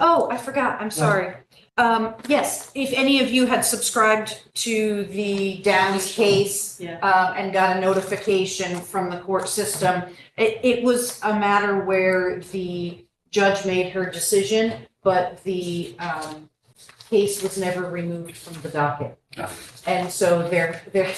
Oh, I forgot, I'm sorry. Um, yes, if any of you had subscribed to the Downs case Yeah. uh, and got a notification from the court system, it, it was a matter where the judge made her decision, but the, um, case was never removed from the docket. Ah. And so there, there,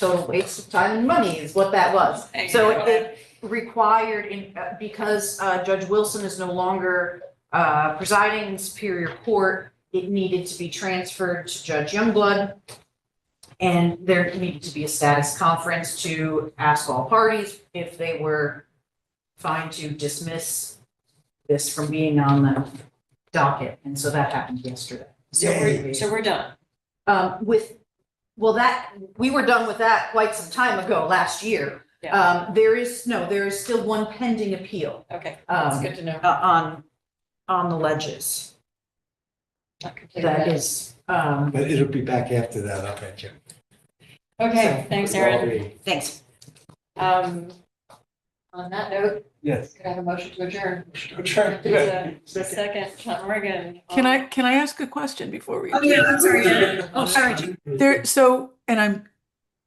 total waste of time and money is what that was. So it- it required in, uh, because uh, Judge Wilson is no longer uh, presiding in Superior Court, it needed to be transferred to Judge Youngblood. And there needed to be a status conference to ask all parties if they were fine to dismiss this from being on the docket. And so that happened yesterday. So we're, so we're done. Um, with, well, that, we were done with that quite some time ago, last year. Yeah. Um, there is, no, there is still one pending appeal, Okay, that's um, good to know. uh, on, on the ledges. Not completely That done. is, um, But it'll be back after that, I'll bet you. Okay, thanks, Erin. thanks. Um, on that note, Yes. could I have a motion to adjourn? Try. There's a Second, Tom Morgan. Can I, Um, can I ask a question before we? I'm sorry, Oh, sorry. There, so, and I'm,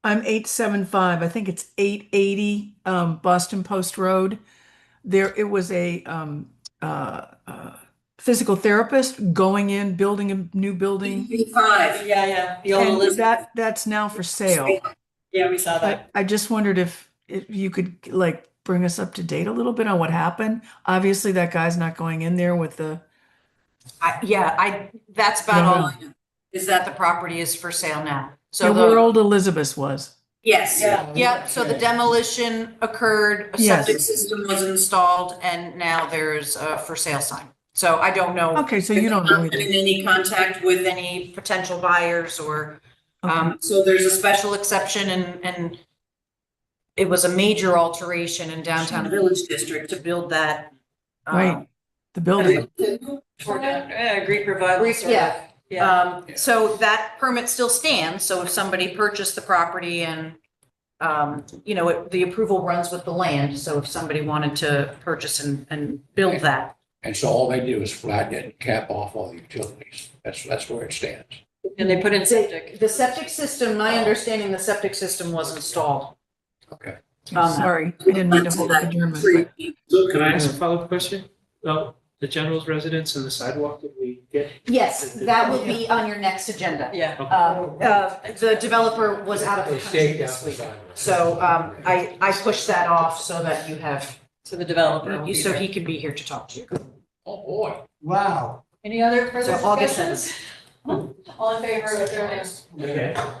I'm eight seven five, I think it's eight eighty, um, Boston Post Road. There, it was a, um, uh, uh, physical therapist going in, building a new Mm-hmm. building. Five. Yeah, yeah, the old And Elizabeth. that, that's now for sale. Yeah, we saw I, that. I just wondered if, if you could like bring us up to date a little bit on what happened. Obviously, that guy's not going in there with the, I, yeah, I, that's about all I know, is that the property is for sale now. So the the, world Elizabeth was. yes, Yeah. yep, so the demolition occurred, a Yes. septic system was installed, and now there's a for sale sign. So I don't know. Okay, so you don't know Not been either. Oh, in any contact with any potential buyers or, um, so there's a special exception and, and it was a major alteration in downtown Village District to build that. um, Right, the building. Toward that, Yeah, Greek revival. Greek- sort of. yeah. Yeah, Um, so that permit still stands, so if somebody purchased the property and, um, you know, it- the approval runs with the land, so if somebody wanted to purchase and, and build that, And so all they do is flatten it, and cap off all the utilities. That's, that's where it stands. and they put in septic. the septic system, my understanding, the septic system was installed. Okay. Um, Sorry, I didn't mean to hold up adjournment. but- So can I ask a follow-up question? Well, the general's residence and the sidewalk, did we get? Yes, that will be on your next agenda. Yeah. Uh, uh, The developer was out of the country this week, so um, I, I pushed that off so that you have, um, So the developer. will be so there. he can be here to talk to you. Oh, boy. Wow. Any other further So August discussions? All in favor of adjournment? Okay.